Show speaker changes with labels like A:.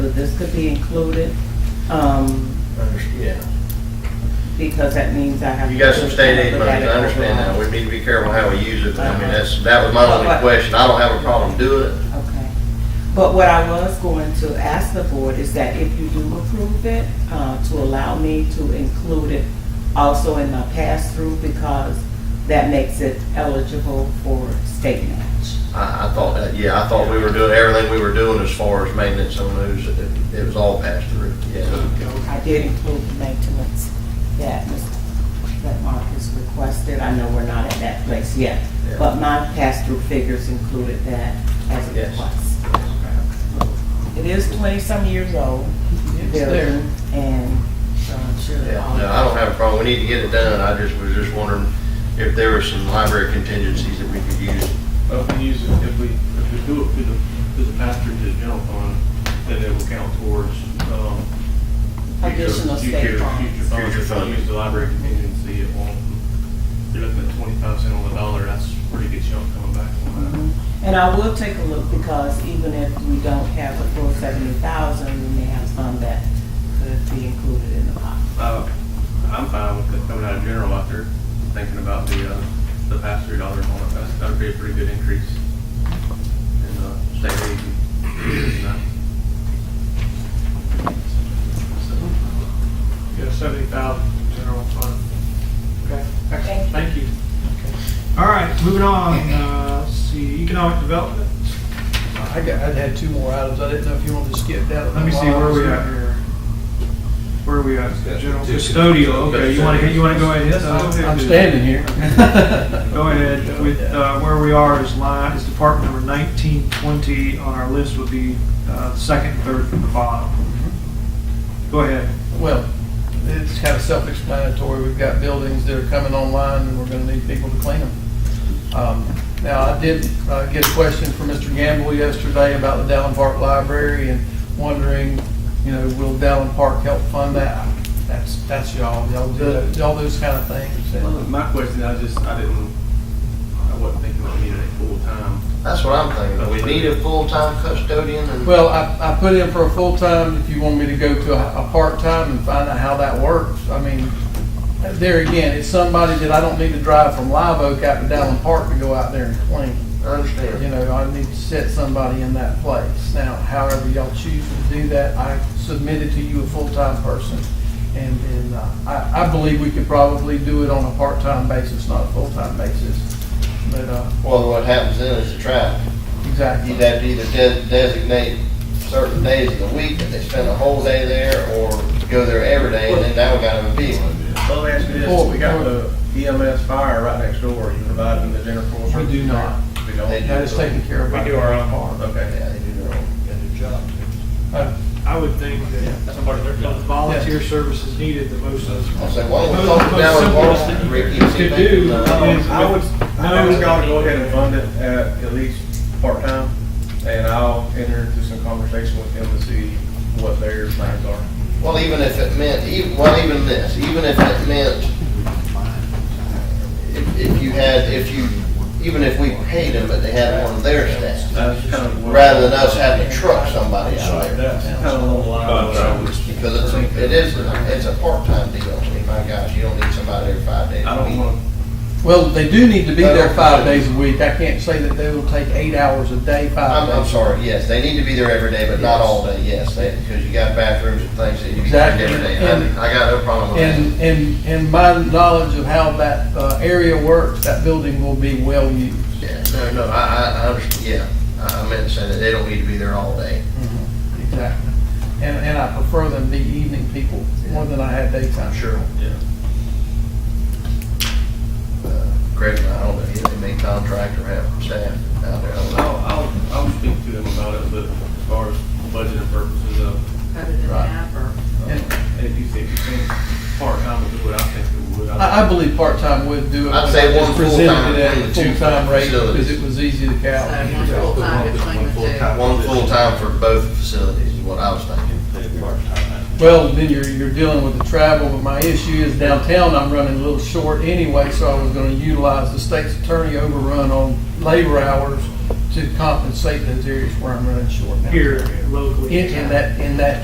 A: this could be included, um,
B: Yeah,
A: because that means I have.
B: you
A: to
B: got some state aid
A: look at
B: money, I
A: it
B: understand that,
A: overall.
B: we need to be careful how we use it, I mean, that's, that was my
A: Uh-huh.
B: only question, I don't have a problem doing it.
A: Okay. But what I was going to ask the board is that if you do approve it, uh, to allow me to include it also in my pass-through because that makes it eligible for state match.
B: I, I thought that, yeah, I thought we were doing, everything we were doing as far as maintenance on those, it, it was all passed through, yeah.
A: I did include the maintenance that, Mr. that Mark has requested. I know we're not at that place yet,
B: Yeah.
A: but my pass-through figures included that as a
B: Yes.
A: request. It is twenty-some years old. building, And so I'm sure.
B: Yeah,
A: all-
B: no, I don't have a problem, we need to get it done, I just was just wondering if there were some library contingencies that we could use.
C: Well, if we use, it- if we, if we do it through the, through the pass-through to the general fund, then it will count towards, um. future-
A: Additional state
C: future-
A: funds.
C: Future funds,
B: Future
C: if we
B: funding.
C: use the library contingency, it won't, you're looking at twenty-five cent on the dollar, that's a pretty good chunk coming back on that.
A: Mhm. And I will take a look because even if we don't have a full seventy thousand, we may have some that could be included in the pot.
C: Uh, I'm fine with it coming out of general after thinking about the, uh, the pass-through dollars on it, that's, that'd be a pretty good increase in, uh, state aid. and, uh,
D: You got seventy thousand general fund. Okay, excellent, thank you. All right, moving on, uh, let's see, economic development.
E: I got, I'd had two more items, I didn't know if you wanted to skip that.
D: Let me see, where are we at here? Where are we at? General custodial, okay, you wanna, you wanna go ahead? Yes, I'll go ahead.
E: I'm standing here.
D: Go ahead with, uh, where we are is line, is department number nineteen twenty on our list would be, uh, second, and third from the bottom. Go ahead.
E: Well, it's kind of self-explanatory, we've got buildings that are coming online, and we're gonna need people to clean them. Um, Now, I did uh, get a question from Mr. Gamble yesterday about the Dallin Park Library, and wondering, you know, will Dallin Park help fund that? That's, that's y'all, y'all do, y'all those kind of things.
C: Well,
E: and-
C: My question, I just, I didn't, I wasn't thinking about needing it full-time.
B: That's what I'm thinking, we need a full-time custodian and.
E: Well, I, I put in for a full-time, if you want me to go to a, a part-time and find out how that works. I mean, there again, it's somebody that I don't need to drive from Live Oak out to Dallin Park to go out there and clean.
B: I understand.
E: You know, I need to set somebody in that place. Now, however y'all choose to do that, I submitted to you a full-time person. And, and uh, I, I believe we could probably do it on a part-time basis, not a full-time basis. But, uh,
B: Well, what happens then is the traffic.
E: exactly.
B: You'd have to either de- designate certain days of the week that they spend a whole day there, or go there every day, and then now we got them a beat.
C: Well, let me ask you
E: Before
C: this,
E: we
C: we got
E: go-
C: the EMS fire right next door, you provide them the general force?
E: We do not.
C: We don't?
B: They do.
E: That is taken care of. by-
D: We do our own part.
C: Okay.
B: Yeah, they do their own.
E: Uh,
D: I would think that somebody, the volunteer service is needed the most.
B: I'll say, why don't we talk to Dallin Park, Ricky, and see if they can, uh,
D: Could do is-
C: Um, I would, I would gotta go ahead and fund it at, at least part-time, and I'll enter into some conversation with them to see what their plans are.
B: Well, even if it meant, even, well, even this, even if it meant, if, if you had, if you, even if we paid them, but they had one of their staff,
C: That's kind of what-
B: rather than us having to truck somebody out there.
C: That's kind of along the line of what I was.
B: Because it's, a- it is, it's a part-time deal, I mean, my gosh, you don't need somebody every five days
C: I
B: a
C: don't
B: week.
C: want,
E: Well, they do need to be there five days a week. I can't say that they will take eight hours a day, five
B: I'm,
E: days.
B: I'm sorry, yes, they need to be there every day, but not all day, Um, yes, they, because you got bathrooms and things that you need
E: Exactly.
B: every day, and I, I got no problem with
E: And, and, and my knowledge of how that uh, area works, that building will be well used.
B: that. Yeah, no, no, I, I, I, under- yeah, I I meant to say that they don't need to be there all day. Mm-hmm.
E: Exactly. And, and I prefer them be evening people more than I had daytime.
C: yeah.
B: Uh, Greg and I, I don't know, either they may contract or have staff out there, I don't know.
C: I'll, I'll, I'll speak to them about it, but as far as budgeting purposes uh, of,
A: Better than
B: Right.
A: half or?
E: And
C: if you think, you think part-time would do what I think it would.
E: I, I believe part-time would do it.
B: I'd say
E: Just
B: one
E: Presented
B: full-time
E: it
B: and
E: at a
B: two
E: full-time rate
B: facilities.
E: because it was easy to count.
C: Yeah, I'll put one- one full-time
B: One
C: position.
B: full-time for both facilities is what I was thinking.
E: Well, then you're, you're dealing with the travel, but my issue is downtown, I'm running a little short anyway, so I was gonna utilize the state's attorney overrun on labor hours to compensate those areas where I'm running short now.
D: Here locally.
E: In, in that, in that